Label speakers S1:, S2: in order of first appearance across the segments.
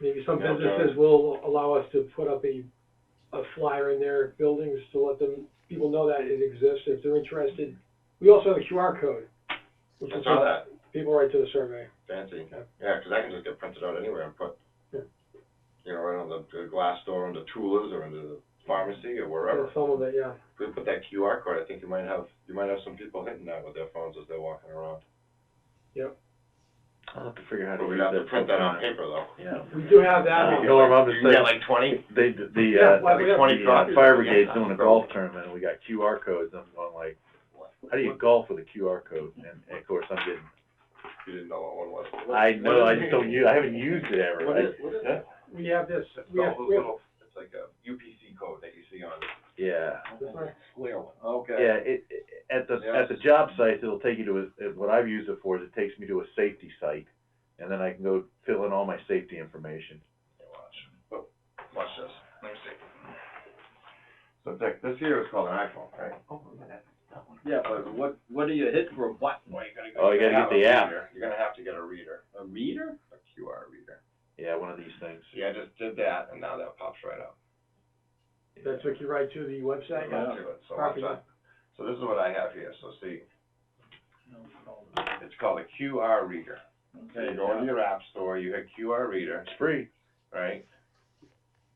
S1: Maybe some
S2: Yeah, okay.
S1: businesses will allow us to put up a, a flyer in their buildings to let them, people know that it exists if they're interested. We also have a QR code. which
S2: I
S1: is
S2: saw that,
S1: People right to the survey.
S2: fancy,
S1: Yeah.
S2: yeah, 'cause that can just get printed out anywhere and put,
S1: Yeah.
S2: you know, right on the, the glass door into Tula's or into the pharmacy or wherever.
S1: Some of it, yeah.
S2: If we put that QR code, I think you might have, you might have some people hitting that with their phones as they're walking around.
S3: I'll have to figure out how to
S2: But we'd
S3: use
S2: have to
S3: that
S2: print that on
S3: sometime.
S2: paper though.
S3: Yeah.
S1: We do have
S3: Uh,
S1: that.
S3: no, I'm just
S2: You can get
S3: saying-
S2: like twenty?
S3: They, d-
S1: Yeah,
S3: the,
S1: why
S3: uh,
S1: we
S3: the
S1: have
S2: twenty
S1: to-
S2: copies.
S3: fire brigade's doing a golf tournament, and we got QR codes, I'm going like, how do you golf with a QR code? And, and of course, I'm getting,
S2: You didn't know what one was.
S3: I know, I just don't use, I haven't used it ever.
S2: What is, what is
S3: Yeah.
S2: it?
S1: We have this,
S2: It's
S1: we have,
S2: all those
S1: we have,
S2: little, it's like a UPC code that you see on.
S3: Yeah,
S1: That's right.
S2: Square one. Okay.
S3: yeah, it, it- at the,
S2: Yeah.
S3: at the job site, it'll take you to, a- it- what I've used it for is it takes me to a safety site, and then I can go fill in all my safety information.
S2: Hey, Watch. Oh, Watch this. Let me see. So Dick, this here is called an iPhone, right?
S4: Yeah, but what, what do you hit for a button?
S2: Well, you gotta
S3: Oh, you gotta get the app.
S2: You're gonna have to get a reader,
S4: A reader?
S2: a QR reader.
S3: Yeah, one of these things.
S2: See, I just did that and now that pops right up.
S1: that took you right to the website.
S2: Right
S4: yeah.
S2: to it. So
S1: Copy
S2: what's that? So this is what I have here. So see, it's called a QR reader. So you go into your app store, you hit QR reader,
S3: It's free.
S2: right?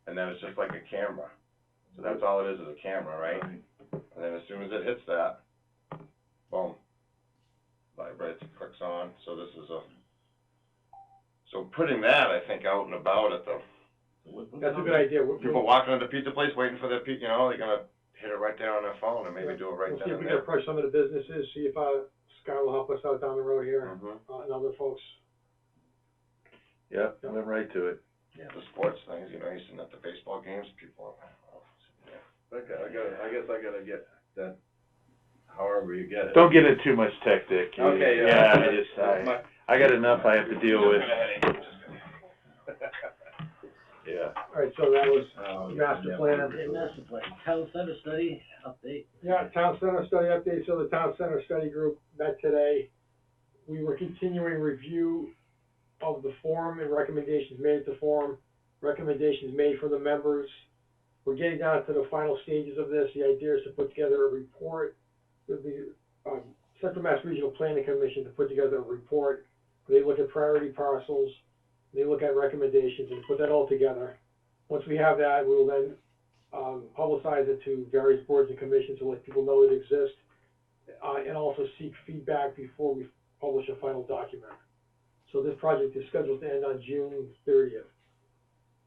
S2: And then it's just like a camera. So that's all it is, is a camera, right? And then as soon as it hits that, boom, vibrates, clicks on, so this is a, so putting that, I think, out and about at the,
S1: That's a good idea. We'll,
S2: people
S1: we'll
S2: walking into the pizza place waiting for their pi- you know, they're gonna hit it right there on their phone and maybe do it right
S1: we'll see
S2: then
S1: if we
S2: and
S1: can
S2: there.
S1: approach some of the businesses, see if, uh, Scott will help us out down the road here,
S2: Mhm.
S1: uh, and other folks.
S3: Yep, I went right to it.
S2: Yeah, the sports things, you know, you're sitting at the baseball games, people,
S4: Okay, I gotta, I guess I gotta get that, however you get it.
S3: Don't get in too much tech, Dick. You-
S4: Okay, yeah.
S3: Yeah, I just, I,
S4: My-
S3: I got enough I have to deal with, yeah.
S1: All right, so that was
S4: Oh,
S1: master
S4: yeah.
S1: plan.
S5: Master plan, town center study update.
S1: Yeah, town center study update, so the town center study group met today. We were continuing review of the forum and recommendations made at the forum, recommendations made from the members. We're getting down to the final stages of this, the idea is to put together a report with the, um, Central Mass Regional Planning Commission to put together a report. They look at priority parcels, they look at recommendations and put that all together. Once we have that, we will then um, publicize it to various boards and commissions to let people know it exists, uh, and also seek feedback before we publish a final document. So this project is scheduled to end on June thirtieth.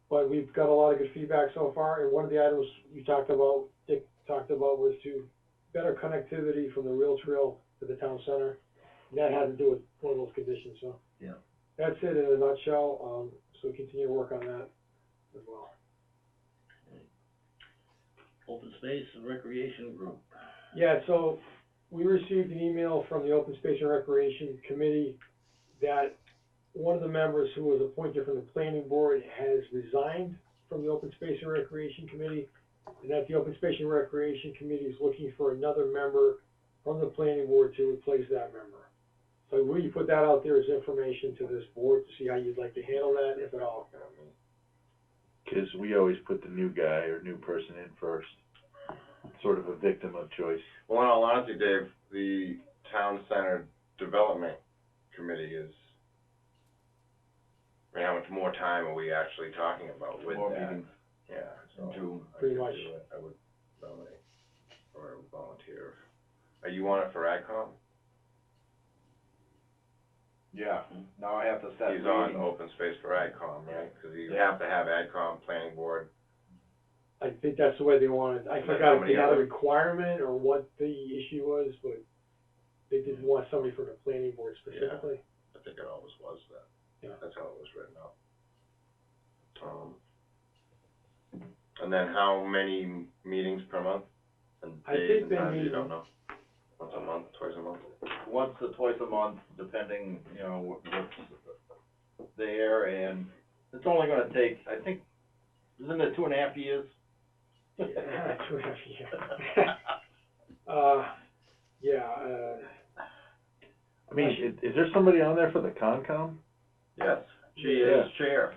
S1: But we've got a lot of good feedback so far, and one of the items you talked about, Dick talked about, was to better connectivity from the rail trail to the town center. And that had to do with one of those conditions, so.
S5: Yeah.
S1: That's it in a nutshell, um, so continue to work on that as well.
S5: Open space and recreation group.
S1: Yeah, so we received an email from the Open Space and Recreation Committee that one of the members who was appointed from the planning board has resigned from the Open Space and Recreation Committee, and that the Open Space and Recreation Committee is looking for another member from the planning board to replace that member. So will you put that out there as information to this board to see how you'd like to handle that, if at all?
S3: Cause we always put the new guy or new person in first. Sort of a victim of choice.
S2: Well, in all honesty, Dave, the town center development committee is, I mean, how much more time are we actually talking about with
S4: More
S2: that?
S4: meetings.
S2: Yeah, so.
S4: June.
S2: I
S1: Pretty
S2: could
S1: much.
S2: do it. I would nominate, or volunteer. Are you on it for AdCom?
S4: Yeah, now I have to set
S2: He's on
S4: meetings.
S2: open space for AdCom, right? Cause you have to have AdCom, planning board,
S1: I think that's the way they wanted, I
S2: And then
S1: forgot if
S2: somebody
S1: they had a
S2: other-
S1: requirement or what the issue was, but they didn't want somebody from the planning board specifically.
S2: I think it always was that.
S1: Yeah.
S2: That's how it was written up. Um, and then how many meetings per month? And
S1: I
S2: days
S1: think
S2: and
S1: they
S2: times, you
S1: meet-
S2: don't know? Once a month, twice a month?
S4: once or twice a month, depending, you know, what- what's there, and it's only gonna take, I think, isn't it two and a half years?
S1: Yeah, two and a half years. Uh, yeah, uh,
S3: I mean, is, is there somebody on there for the Concom?
S2: Yes,
S4: She is chair,